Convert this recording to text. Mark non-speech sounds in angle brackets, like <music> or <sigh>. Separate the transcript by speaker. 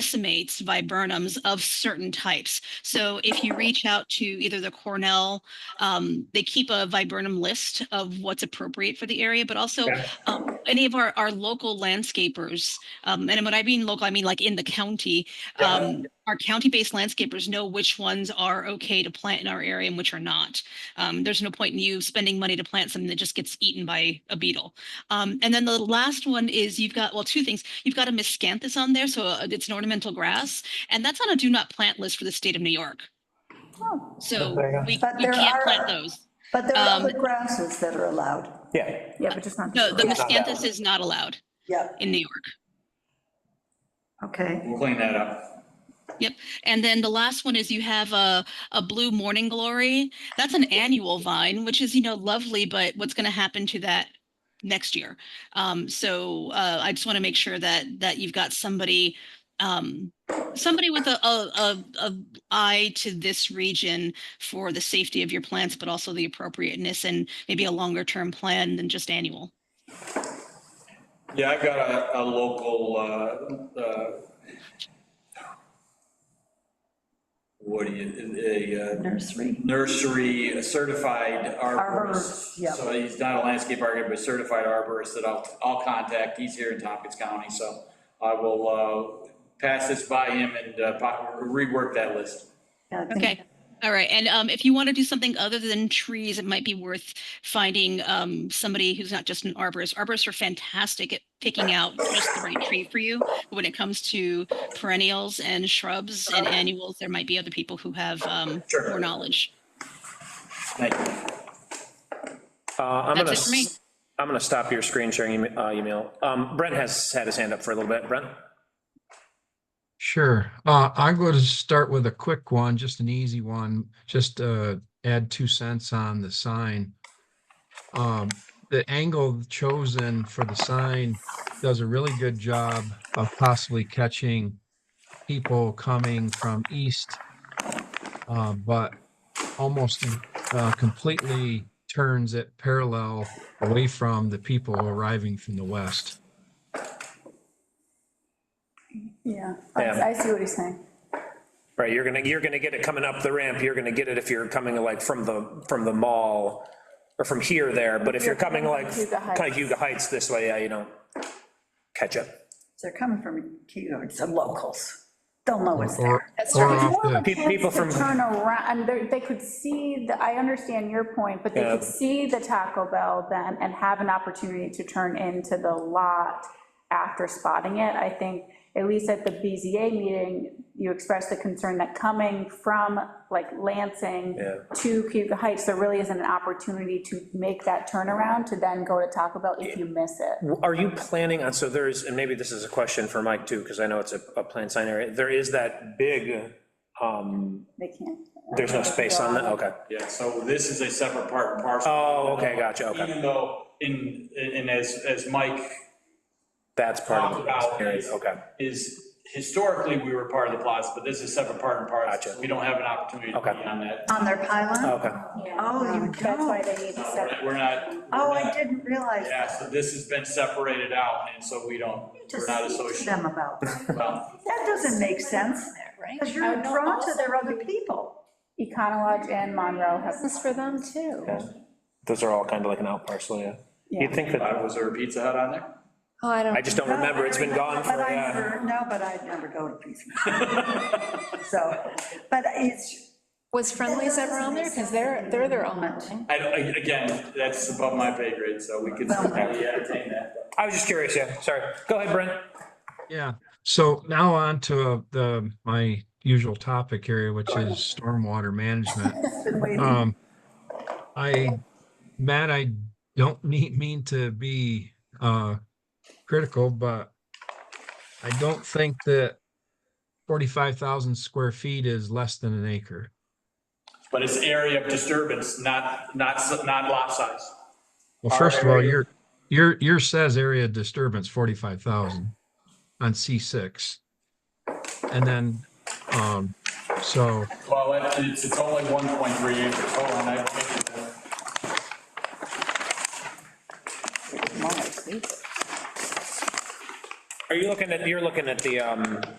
Speaker 1: decimates viburnums of certain types. So if you reach out to either the Cornell, um, they keep a viburnum list of what's appropriate for the area, but also
Speaker 2: Yeah.
Speaker 1: um, any of our, our local landscapers, um, and when I mean local, I mean like in the county, um, our county-based landscapers know which ones are okay to plant in our area and which are not. Um, there's no point in you spending money to plant something that just gets eaten by a beetle. Um, and then the last one is you've got, well, two things. You've got a miscanthus on there, so uh, it's an ornamental grass, and that's on a do not plant list for the state of New York. So
Speaker 2: There you go.
Speaker 1: we,
Speaker 3: Oh. But
Speaker 1: we
Speaker 3: there
Speaker 1: can't
Speaker 3: are-
Speaker 1: plant those.
Speaker 3: But there are
Speaker 1: Um,
Speaker 3: other grasses that are allowed.
Speaker 2: Yeah,
Speaker 4: Yeah, but just not.
Speaker 1: No, the
Speaker 3: Yeah.
Speaker 1: miscanthus is not allowed
Speaker 3: Yep,
Speaker 1: in New York.
Speaker 3: okay.
Speaker 5: We'll clean that up.
Speaker 1: Yep. And then the last one is you have a, a blue morning glory. That's an annual vine, which is, you know, lovely, but what's going to happen to that next year? Um, so uh, I just want to make sure that that you've got somebody um, somebody with a, a, a, a eye to this region for the safety of your plants, but also the appropriateness and maybe a longer term plan than just annual.
Speaker 5: Yeah, I've got a, a local, uh, uh, what do you, a, uh,
Speaker 3: Nursery.
Speaker 5: nursery certified
Speaker 3: Arborist, yeah.
Speaker 5: arborist. So he's not a landscape architect, but certified arborist that I'll, I'll contact. He's here in Tompkins County, so I will uh, pass this by him and uh, po- rework that list.
Speaker 3: Yeah, I think-
Speaker 1: Okay, all right, and um, if you want to do something other than trees, it might be worth finding um, somebody who's not just an arborist. Arborists are fantastic at picking out just the right tree for you. But When it comes to perennials and shrubs and annuals, there might be other people who have um,
Speaker 5: Sure.
Speaker 1: more knowledge.
Speaker 5: Thank you.
Speaker 2: Uh, I'm gonna,
Speaker 1: That's it for me.
Speaker 2: s- I'm gonna stop your screen sharing ema- uh, email. Um, Brent has had his hand up for a little bit. Brent?
Speaker 6: Sure. Uh, I'm going to start with a quick one, just an easy one. Just uh, add two cents on the sign. Um, the angle chosen for the sign does a really good job of possibly catching people coming from east, uh, but almost uh, completely turns it parallel away from the people arriving from the west.
Speaker 4: Yeah, I I see what he's saying.
Speaker 2: Right, you're gonna, you're gonna get it coming up the ramp. You're gonna get it if you're coming like from the, from the mall or from here there. But if you're coming like
Speaker 4: Huga Heights.
Speaker 2: kind of Huga Heights this way, yeah, you don't catch it.
Speaker 3: They're coming from, you know, some locals. They'll know it's
Speaker 6: Or,
Speaker 3: there.
Speaker 4: It's
Speaker 6: or
Speaker 4: more
Speaker 6: off
Speaker 4: of a
Speaker 6: the-
Speaker 2: Pe- people
Speaker 4: chance to
Speaker 2: from-
Speaker 4: Turn around, and they- they could see, the. I understand your point, but they
Speaker 2: Yeah.
Speaker 4: could see the Taco Bell then and have an opportunity to turn into the lot after spotting it. I think, at least at the BZA meeting, you expressed the concern that coming from like Lansing
Speaker 2: Yeah.
Speaker 4: to Cuba Heights, there really isn't an opportunity to make that turnaround to then go to Taco Bell if you miss it.
Speaker 2: Are you planning on, so there's, and maybe this is a question for Mike too, because I know it's a, a planned sign area. There is that big, um,
Speaker 4: They can't.
Speaker 2: there's no space on that, okay.
Speaker 5: Yeah, so this is a separate part and parcel.
Speaker 2: Oh, okay, gotcha, okay.
Speaker 5: Even though, in, and as, as Mike
Speaker 2: That's part of
Speaker 5: Talked about
Speaker 2: the area,
Speaker 5: is-
Speaker 2: okay.
Speaker 5: is, historically, we were part of the plaza, but this is separate part and parcel.
Speaker 2: Gotcha.
Speaker 5: We don't have an opportunity to be
Speaker 2: Okay.
Speaker 5: on that.
Speaker 3: On their pylon?
Speaker 2: Okay,
Speaker 3: Oh, you
Speaker 4: That's why they need to
Speaker 5: No,
Speaker 4: separate.
Speaker 5: We're not. we're
Speaker 3: Oh, I
Speaker 5: not-
Speaker 3: didn't realize.
Speaker 5: Yeah, so this has been separated out, and so we don't, we're
Speaker 3: Just
Speaker 5: not
Speaker 3: speak to them
Speaker 5: associated.
Speaker 3: about, that
Speaker 2: <laughs>
Speaker 5: Well,
Speaker 3: That doesn't make sense, because
Speaker 4: I
Speaker 3: you're
Speaker 4: know
Speaker 3: drawn to
Speaker 4: also
Speaker 3: their other people.
Speaker 4: Econolodge and Monroe have. This is for them too.
Speaker 2: those are all kind of like an out parcel, yeah. You'd think that,
Speaker 5: uh, Was there a Pizza Hut on there?
Speaker 7: Oh, I
Speaker 2: I
Speaker 7: don't,
Speaker 2: just don't remember, it's been gone for,
Speaker 3: But I
Speaker 2: yeah.
Speaker 3: never- No, but I'd never go to Pizza
Speaker 2: <laughs>
Speaker 3: Hut. So, but it's,
Speaker 7: was Friendlies ever on there? Because they're, they're their own thing.
Speaker 5: I, don't- I- again, that's above my pay grade, so we could certainly entertain that.
Speaker 2: I was just curious, yeah, sorry. Go ahead, Brent.
Speaker 6: Yeah, so now on to uh, the, my usual topic area, which is stormwater management.
Speaker 3: been waiting.
Speaker 6: Um, I, Matt, I don't <laughs> mean, mean to be, uh, critical, but I don't think that forty-five thousand square feet is less than an acre.
Speaker 5: But it's area of disturbance, not, not, s- not lot size.
Speaker 6: Well,
Speaker 5: Our
Speaker 6: first of all,
Speaker 5: area-
Speaker 6: your, your, your says area of disturbance forty-five thousand on C six. And then, um, so.
Speaker 5: Well, it- it's, it's only 1.3 acres, hold on, I think it's-
Speaker 2: Are you looking at, you're looking at the, um,